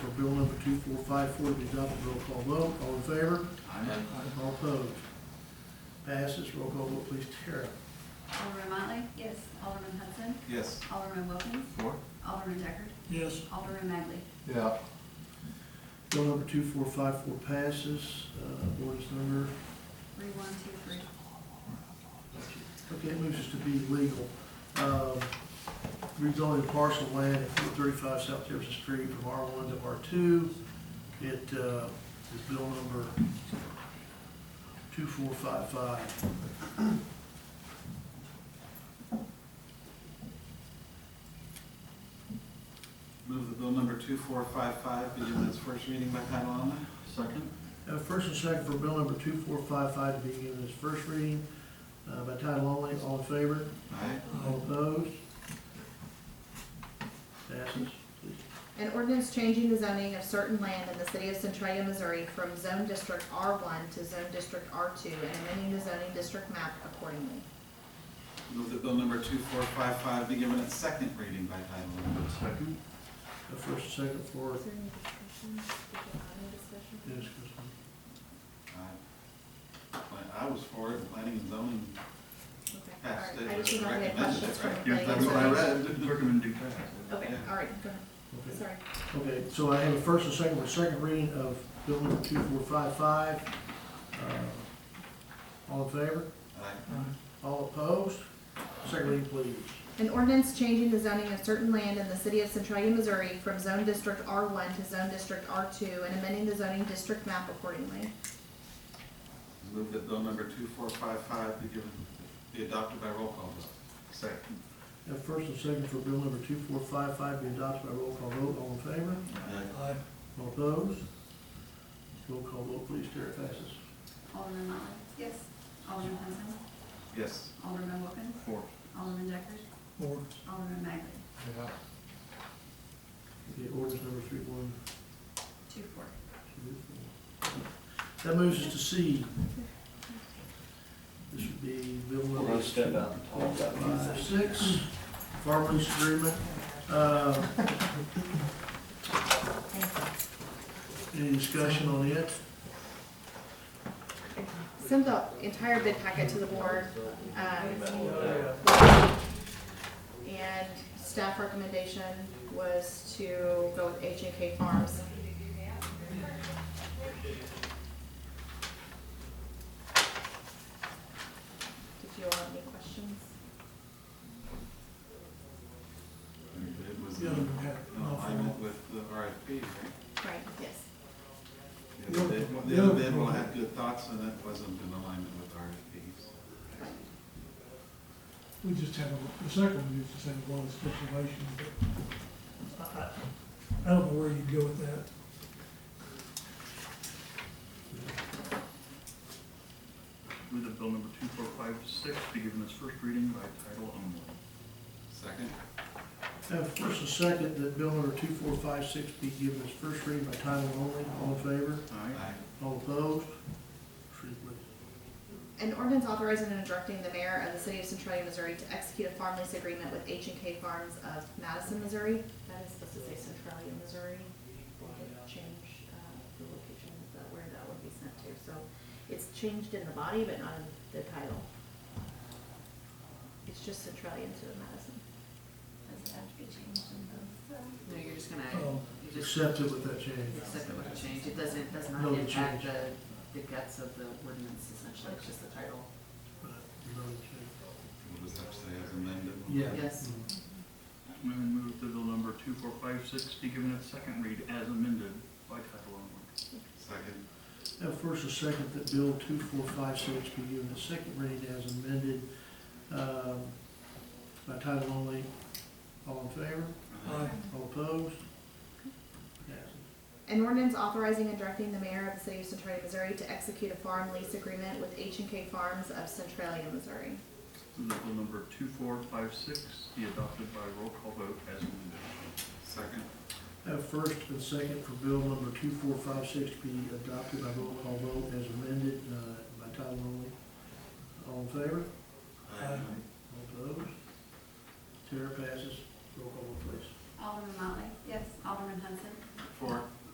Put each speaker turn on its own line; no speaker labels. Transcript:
two four five four be adopted, roll call vote, all in favor?
Aye.
All opposed? Passes, roll call vote, please, Tara.
Alderman Motley? Yes. Alderman Hudson?
Yes.
Alderman Wilkins?
Four?
Alderman Deckard?
Yes.
Alderman Magley?
Yeah.
Bill number two four five four passes, uh, ordinance number,
Three, one, two, three.
okay, it moves us to be legal. Um, rezoning parcel land at four thirty-five South Jefferson Street from R one to R two. It, uh, is bill number two four five five.
Move the bill number two four five five be given its first reading by title only. Second?
Uh, First and second for bill number two four five five to be given its first reading uh, by title only. All in favor?
Aye.
All opposed? Passes.
An ordinance changing the zoning of certain land in the city of Centralia, Missouri from zone district R one to zone district R two and amending the zoning district map accordingly.
Move the bill number two four five five be given its second reading by title only. Second?
Uh, First and second for
there any discussion? discussion?
yes,
Aye. Pla- I was for it, planning and zoning
Okay, all
passed it.
right. I just didn't know if we had
recommended
questions
it, right? That's what I read.
from. the-
Recommended
Okay,
Yeah.
all right, go ahead,
Chris.
sorry.
Okay. Okay, so I have a first and second for second reading of bill number two four five five. Uh, All in favor?
Aye.
All opposed? Second reading, please.
An ordinance changing the zoning of certain land in the city of Centralia, Missouri from zone district R one to zone district R two and amending the zoning district map accordingly.
Move that bill number two four five five be given, be adopted by roll call vote. Second.
Have first and second for bill number two four five five be adopted by roll call vote. All in favor?
Aye.
All opposed? Roll call vote, please, Tara passes.
Alderman Motley? Yes. Alderman Hudson?
Yes.
Alderman Wilkins?
Four.
Alderman Deckard? Alderman Magley?
Okay, ordinance number three one
Two, four.
two four. That moves us to C. This would be bill
We're
number
gonna
two
step out and talk about
five six, farm lease agreement. Uh, Any discussion on it?
Send the entire bid packet to the board, um,
it.
and staff recommendation was to go with H and K Farms. Did you all have any questions?
It was,
Yeah,
no,
we had-
I meant with the RFP, right?
Right, yes.
The other bid, the other bid will have good thoughts, and that wasn't in alignment with RFPs.
We just had, a- the second one used to say a lot of stipulation, but I, I, I don't know where you'd go with that.
Move that bill number two four five six be given its first reading by title only.
Second?
Have first and second that bill number two four five six be given its first reading by title only. All in favor?
Aye.
All opposed? Three, please.
An ordinance authorizing and directing the mayor of the city of Centralia, Missouri to execute a farm lease agreement with H and K Farms of Madison, Missouri. That is supposed to say Centralia, Missouri. We'll get- Change, uh, the location of that- where that would be sent to. So it's changed in the body, but not in the title. It's just Centralia instead of Madison.
Does it have to be changed in
No, you're just gonna,
Oh.
you just
Accept it with that change.
accept it with a change, it doesn't, does not
No
impact
change.
the, the guts of the ordinance essentially, it's just the title.
Right, no change.
We'll just have to say as amended.
Yeah.
Yes.
Mm.
And then move the bill number two four five six be given its second read as amended by title only.
Second?
Have first and second that bill two four five six be given its second reading as amended, um, by title only. All in favor?
Uh,
I,
All opposed? Passes.
An ordinance authorizing and directing the mayor of the city of Centralia, Missouri to execute a farm lease agreement with H and K Farms of Centralia, Missouri.
Move that bill number two four five six be adopted by roll call vote as amended.
Second?
Have first and second for bill number two four five six to be adopted by roll call vote as amended, uh, by title only. All in favor?
Aye.
uh,
All opposed? Tara passes. Roll call vote, please.
Alderman Motley? Yes. Alderman Hudson?
Four?